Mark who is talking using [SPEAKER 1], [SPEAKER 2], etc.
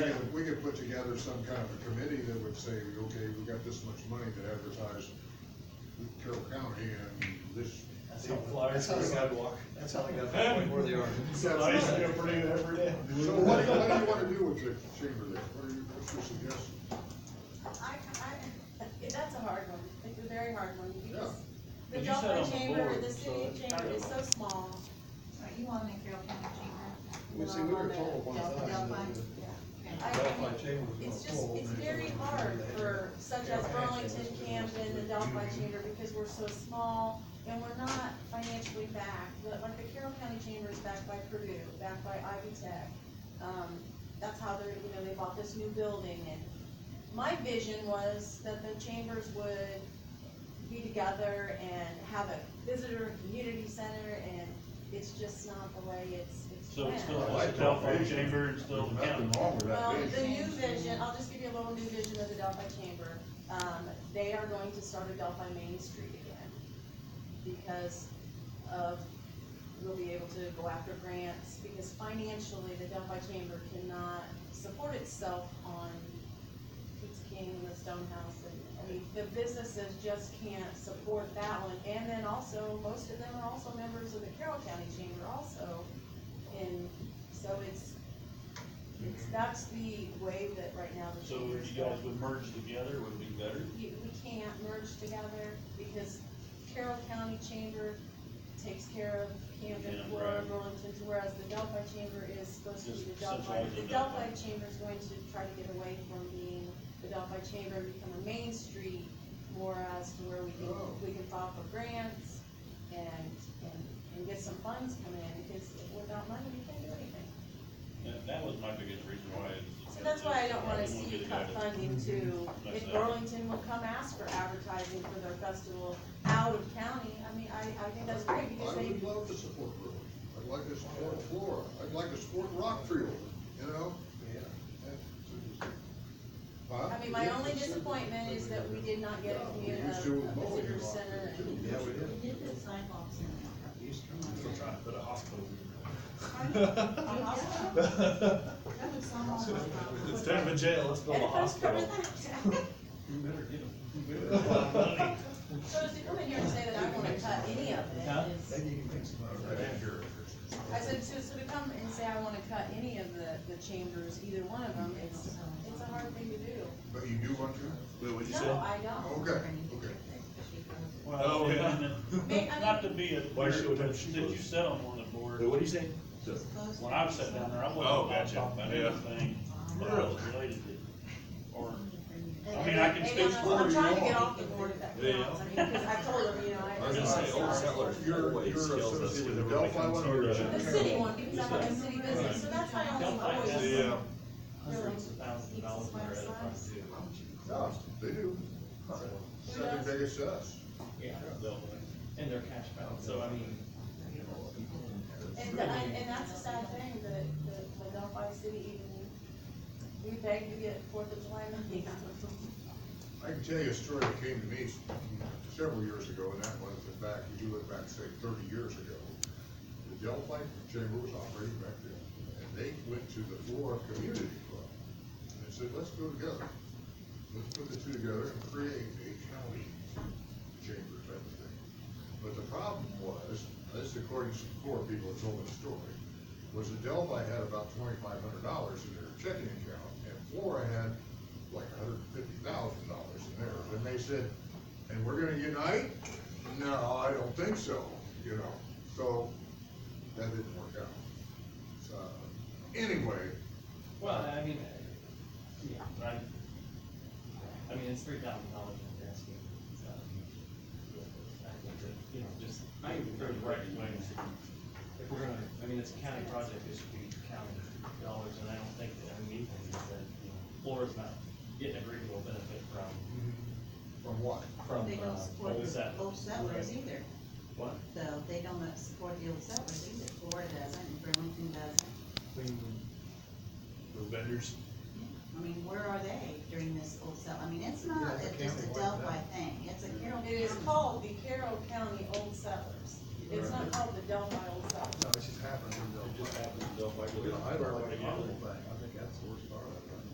[SPEAKER 1] could, we could put together some kind of a committee that would say, okay, we've got this much money to advertise Carroll County and this.
[SPEAKER 2] That's
[SPEAKER 3] Big
[SPEAKER 2] how- that's
[SPEAKER 3] flyers
[SPEAKER 2] how
[SPEAKER 3] for the
[SPEAKER 2] they-
[SPEAKER 3] sidewalk.
[SPEAKER 2] That's how they got the point where they are.
[SPEAKER 3] I used to do it pretty good every day.
[SPEAKER 1] So what do you, what do you wanna do with the chamber there? What are you, what's your suggestion?
[SPEAKER 4] I, I, that's a hard one, it's a very hard one, because the
[SPEAKER 3] But you sat on
[SPEAKER 4] Dublin
[SPEAKER 3] the
[SPEAKER 4] Chamber,
[SPEAKER 3] board,
[SPEAKER 4] the
[SPEAKER 3] so
[SPEAKER 4] city
[SPEAKER 3] it's
[SPEAKER 4] chamber
[SPEAKER 3] kind
[SPEAKER 4] is
[SPEAKER 3] of-
[SPEAKER 4] so small.
[SPEAKER 5] Right, you want to make your own county chamber?
[SPEAKER 2] We see, we were told
[SPEAKER 4] Oh,
[SPEAKER 2] one time. that the-
[SPEAKER 4] I-
[SPEAKER 2] Delphi Chamber was
[SPEAKER 4] It's
[SPEAKER 2] gonna
[SPEAKER 4] just,
[SPEAKER 2] fold,
[SPEAKER 4] it's
[SPEAKER 2] and they
[SPEAKER 4] very
[SPEAKER 2] told us
[SPEAKER 4] hard
[SPEAKER 2] they had to-
[SPEAKER 4] for such as Burlington, Camden, the Delphi Chamber, because we're so small, and we're not financially backed. Like like the Carroll County Chamber is backed by Purdue, backed by Ivy Tech. Um, that's how they're, you know, they bought this new building, and my vision was that the chambers would be together and have a visitor community center, and it's just not the way it's, it's
[SPEAKER 3] So
[SPEAKER 4] planned.
[SPEAKER 3] it's still
[SPEAKER 1] I
[SPEAKER 3] a
[SPEAKER 1] like
[SPEAKER 3] telephone
[SPEAKER 1] that.
[SPEAKER 3] chamber and still the county.
[SPEAKER 1] Nothing wrong with that.
[SPEAKER 4] Well,
[SPEAKER 1] vision.
[SPEAKER 4] the new vision, I'll just give you a little new vision of the Delphi Chamber. Um, they are going to start a Delphi Main Street again because of, we'll be able to go after grants because financially, the Delphi Chamber cannot support itself on Pizza King and the Stonehouse and, I mean, the businesses just can't support that one. And then also, most of them are also members of the Carroll County Chamber also. And so it's, it's, that's the way that right now the
[SPEAKER 3] So
[SPEAKER 4] chamber
[SPEAKER 3] if
[SPEAKER 4] is
[SPEAKER 3] you guys
[SPEAKER 4] going.
[SPEAKER 3] would merge together, would be better.
[SPEAKER 4] You, we can't merge together because Carroll County Chamber takes care of Camden,
[SPEAKER 3] Yeah,
[SPEAKER 4] Flora,
[SPEAKER 3] right.
[SPEAKER 4] Burlington, whereas the Delphi Chamber is supposed to be
[SPEAKER 3] Just
[SPEAKER 4] the Delphi.
[SPEAKER 3] centralized
[SPEAKER 4] The
[SPEAKER 3] in
[SPEAKER 4] Delphi
[SPEAKER 3] Delphi.
[SPEAKER 4] Chamber is going to try to get away from being the Delphi Chamber and become a main street more as to where we can,
[SPEAKER 1] Oh.
[SPEAKER 4] we can file for grants and, and, and get some funds coming in because without money, we can't do anything.
[SPEAKER 3] That, that was my biggest reason why. I-
[SPEAKER 4] So that's why I don't wanna
[SPEAKER 3] didn't
[SPEAKER 4] see
[SPEAKER 3] get
[SPEAKER 4] cut
[SPEAKER 3] together.
[SPEAKER 4] funding to, if Burlington will come ask for advertising for their festival out of county, I mean, I, I think that's
[SPEAKER 1] I
[SPEAKER 4] great because they,
[SPEAKER 1] would love to support Brewers. I'd like to support Flora. I'd like to support Rockfield, you know? Yeah.
[SPEAKER 4] I mean, my only disappointment is that we did not get a community, a visitor center. and-
[SPEAKER 2] Yeah, we did.
[SPEAKER 5] You did sidewalks in
[SPEAKER 6] Still trying to put a hospital
[SPEAKER 5] there.
[SPEAKER 6] in.
[SPEAKER 5] That would solve all my problems.
[SPEAKER 6] Instead of a jail, let's build
[SPEAKER 4] And
[SPEAKER 6] a
[SPEAKER 4] if I was covered
[SPEAKER 6] hospital.
[SPEAKER 4] that. So is to come in here and say that I wanna cut any of
[SPEAKER 3] Huh?
[SPEAKER 4] it is,
[SPEAKER 2] Maybe you can make some.
[SPEAKER 4] I said, so, so to come and say I wanna cut any of the, the chambers, either one of them, it's, it's a hard thing to do.
[SPEAKER 1] But you do want to?
[SPEAKER 6] Wait, what'd you say?
[SPEAKER 4] No, I don't.
[SPEAKER 1] Okay, okay.
[SPEAKER 3] Well,
[SPEAKER 6] Oh,
[SPEAKER 3] and-
[SPEAKER 6] yeah.
[SPEAKER 3] and-
[SPEAKER 4] May- I
[SPEAKER 3] Not to
[SPEAKER 4] mean-
[SPEAKER 3] be a,
[SPEAKER 6] Why
[SPEAKER 3] weird,
[SPEAKER 6] should
[SPEAKER 3] but
[SPEAKER 6] we-
[SPEAKER 3] since you sat on one of the
[SPEAKER 6] Wait,
[SPEAKER 3] boards,
[SPEAKER 6] what'd you say?
[SPEAKER 3] when I've sat down there, I
[SPEAKER 6] Oh,
[SPEAKER 3] wasn't allowed to
[SPEAKER 6] gotcha.
[SPEAKER 3] talk about
[SPEAKER 6] Yeah.
[SPEAKER 3] anything that I was related to. Or, I mean,
[SPEAKER 4] And-
[SPEAKER 3] I can
[SPEAKER 4] and
[SPEAKER 3] speak
[SPEAKER 4] I'm-
[SPEAKER 3] for
[SPEAKER 4] I'm
[SPEAKER 3] you
[SPEAKER 4] trying to
[SPEAKER 3] all.
[SPEAKER 4] get off the board if that
[SPEAKER 6] Yeah.
[SPEAKER 4] counts, I mean, because I told them, you know, I.
[SPEAKER 6] I was gonna say, old settlers
[SPEAKER 1] oh, You're,
[SPEAKER 6] always
[SPEAKER 1] you're
[SPEAKER 6] kills us
[SPEAKER 1] associated with the
[SPEAKER 6] whenever they
[SPEAKER 1] Delphi
[SPEAKER 6] come
[SPEAKER 1] one
[SPEAKER 6] to
[SPEAKER 1] or
[SPEAKER 6] our-
[SPEAKER 1] the
[SPEAKER 4] The city one, because I'm on the city business, so that's my only
[SPEAKER 3] Right.
[SPEAKER 4] voice.
[SPEAKER 3] Yeah.
[SPEAKER 4] Really.
[SPEAKER 3] hundreds of thousands of dollars in their other funds too.
[SPEAKER 1] No, they do. Second biggest to us.
[SPEAKER 7] Yeah, they'll, and their cash balance, so I mean, you know,
[SPEAKER 4] And, and, and that's a sad thing, that, that the Delphi City even, we begged to get Fourth of July money out of them.
[SPEAKER 1] I can tell you a story that came to me several years ago, and that was in fact, if you look back, say, thirty years ago, the Delphi Chamber was operating back then, and they went to the Flora Community Club, and they said, let's go together. Let's put the two together and create a county chamber type of thing. But the problem was, this is according to some core people that told me the story, was that Delphi had about twenty-five hundred dollars in their checking account, and Flora had like hundred and fifty thousand dollars in theirs, and they said, and we're gonna unite? No, I don't think so, you know, so that didn't work out. So, anyway,
[SPEAKER 7] well, I mean, uh, yeah, but I, I mean, it's three thousand dollars in gas. You know, just, I even go the right way. If we're gonna, I mean, it's a county project, it should be county dollars, and I don't think that, I mean, even that, you know, Flora's not getting a reasonable benefit from,
[SPEAKER 1] from what?
[SPEAKER 7] from,
[SPEAKER 5] They don't
[SPEAKER 7] uh,
[SPEAKER 5] support
[SPEAKER 7] old
[SPEAKER 5] the
[SPEAKER 7] settlers.
[SPEAKER 5] old settlers either,
[SPEAKER 7] What?
[SPEAKER 5] so they don't uh, support the old settlers either, Florida doesn't, and Burlington doesn't.
[SPEAKER 6] The vendors?
[SPEAKER 5] I mean, where are they during this old sell, I mean, it's
[SPEAKER 2] Yeah,
[SPEAKER 5] not
[SPEAKER 2] it's a
[SPEAKER 5] a- just a
[SPEAKER 2] county-wide
[SPEAKER 5] Delphi thing, it's a Carroll.
[SPEAKER 4] It is
[SPEAKER 5] County.
[SPEAKER 4] called the Carroll County Old Settlers, it's not called the Delphi Old Settlers.
[SPEAKER 2] No, it just happened in
[SPEAKER 3] It just
[SPEAKER 2] Delphi.
[SPEAKER 3] happens to Delphi.
[SPEAKER 2] You know, I don't like the
[SPEAKER 3] Yeah.
[SPEAKER 2] model thing, I think that's the worst part of it.